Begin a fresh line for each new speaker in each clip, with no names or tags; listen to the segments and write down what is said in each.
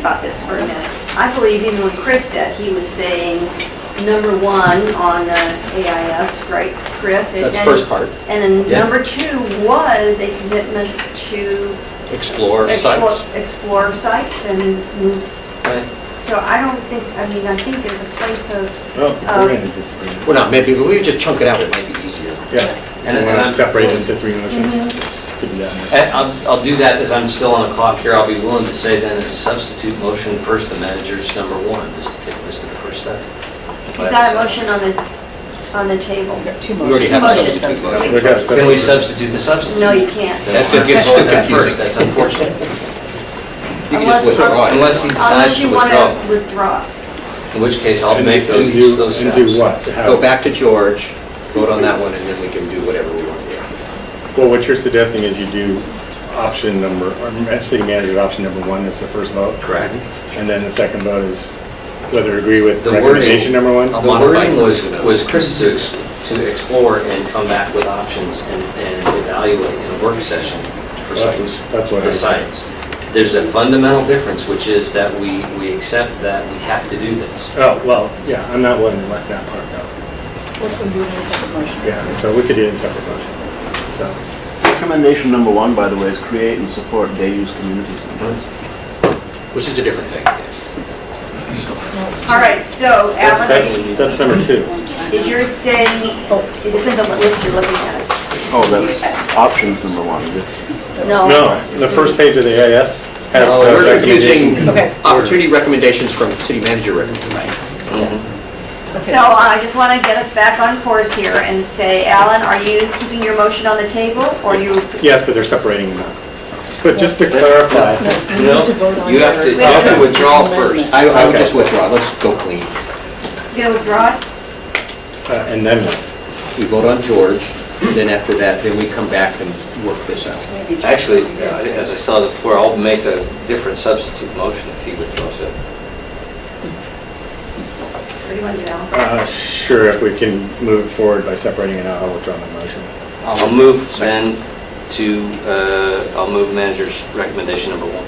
about this for a minute. I believe even when Chris said, he was saying number one on the AIS, right, Chris? And
That's
then-
first part.
And then
Yeah.
number two was a commitment to
Explore
explore
sites.
explore sites and move.
Right.
So I don't think, I mean, I think there's a place of,
Well,
Um,
we're in a disagreement.
Well, not maybe, but we just chunk it out, it might be easier.
Yeah,
And-
we
and
want to
I'm-
separate it into three motions. Could be that.
And eh, I'll, I'll do that as I'm still on the clock here. I'll be willing to say then as a substitute motion, first the manager's number one, just to take this to the first step.
you got a motion on the, on the table.
Two
We already
motions.
have a
Motion.
substitute
We
motion.
gotta separate
Can we
it.
substitute the substitute?
No, you can't.
That just gets too confusing, that's unfortunate.
You can just
Unless-
withdraw it.
Unless he decides
Unless
to
you want
withdraw,
to withdraw.
in which case I'll
And-
make those,
and do-
those steps.
And do what? To have-
Go back to George, vote on that one, and then we can do whatever we want to
Well, what you're suggesting is you do option number, or city manager option number one is the first vote,
Correct.
and then the second vote is whether agree with
The wording,
recommendation number one?
the
modify
wording
it.
was, was Chris to, ex- to explore and come back with options and, and evaluate in a work session. for
That's
sites.
what- that's what I
The
was-
sites. There's a fundamental difference, which is that we, we accept that we have to do this.
Oh, well, yeah, I'm not willing to let that part go.
What can we do in a second motion?
Yeah, so we could do it in separate motion. So,
Recommendation number one, by the way, is create and support day-use community centers.
do, which is a different thing.
All right, so
that's,
Alan,
that's, that's number two.
is yours staying, oh, it depends on what list you're looking at.
Oh, that's options number one.
No.
No, the first page of the AIS has
No,
the
We're confusing
recommendation.
Okay.
opportunity recommendations from city manager recommendations.
So uh, I just want to get us back on course here and say, Alan, are you keeping your motion on the table or you?
Yes, but they're separating them out. But just to clarify,
We need to vote on
You have to, you
your-
have to withdraw
Amendment.
first.
I, I would
Okay.
just withdraw, let's go clean.
You gonna withdraw it?
uh, and then what?
We vote on George, then after that, then we come back and work this out.
Maybe-
Actually, uh, as I saw before, I'll make a different substitute motion if he withdraws it.
What do you want to do, Alan?
Uh, Sure, if we can move it forward by separating it out, I'll withdraw my motion.
I'll move then to, uh, I'll move manager's recommendation number one.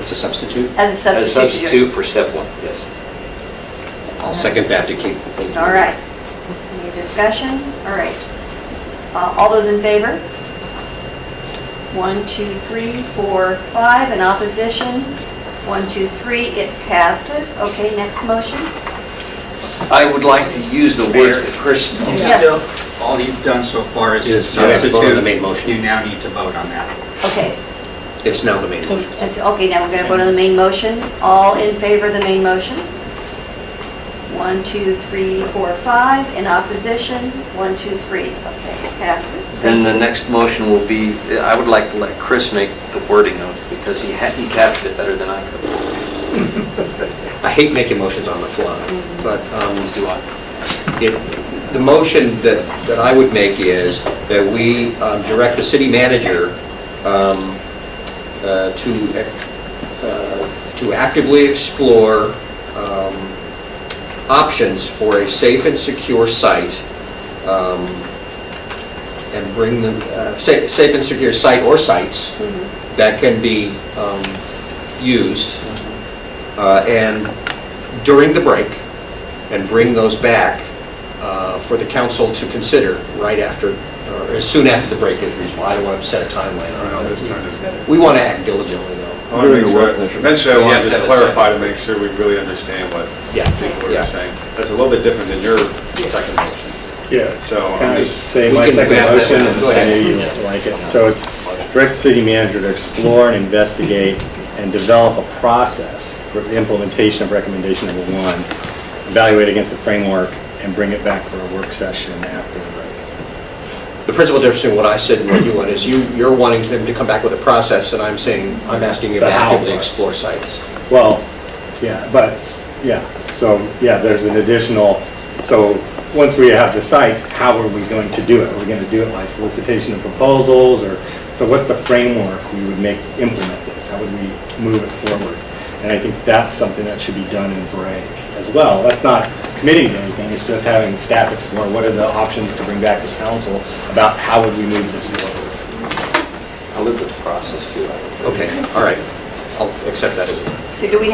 It's a substitute.
As a substitute.
As a substitute for step one, yes.
I'll second that to keep.
All right. Any discussion? All right. Uh, All those in favor? One, two, three, four, five. In opposition? One, two, three. It passes. Okay, next motion.
I would like to use the words that Chris
Yes.
All you've done so far is
Is
just
substitute.
substitute.
Vote on the main motion.
You now need to vote on that.
Okay.
It's now the main
So-
motion.
So it's- Okay, now we're going to go to the main motion. All in favor of the main motion? One, two, three, four, five. In opposition? One, two, three. Okay, it passes.
Then the next motion will be, I would like to let Chris make the wording of, it because he had, he captured it better than I could.
I hate making motions on the fly, but um,
As do I.
it- the motion that, that I would make is that we um, direct the city manager um, uh, to, uh, to actively explore um, options for a safe and secure site um, and bring them, uh, sa- safe and secure site or sites that can be um, used uh, and during the break, and bring those back uh, for the council to consider right after, or as soon after the break is reasonable. I don't want to set a timeline on it. We want to act diligently, though.
Oh, I want to make sure, eventually I
We
want
have
to
to
just
have a
clarify to make sure we really understand what
Yeah.
what
Yeah.
you're saying. That's a little bit different than your second motion.
Yeah.
So
Can
I'm
I
just,
say
um, We
my
can
second
grab that
motion
one.
and
Go
say
ahead.
you like it? So it's direct city manager to explore and investigate and develop a process for the implementation of recommendation number one, evaluate against the framework, and bring it back for a work session after the break.
The principal difference between what I said and what you want is you, you're wanting them to come back with a process, and I'm saying, I'm asking you to
The how
actively
part.
explore sites.
Well, yeah, but, yeah, so, yeah, there's an additional, so, once we have the sites, how are we going to do it? Are we gonna do it by solicitation of proposals, or, so what's the framework we would make, implement this? How would we move it forward? And I think that's something that should be done in break as well. That's not committing to anything, it's just having staff explore what are the options to bring back to council about how would we move this forward.
I'll live with the process too.
Okay, all right. I'll accept that as,
So do we have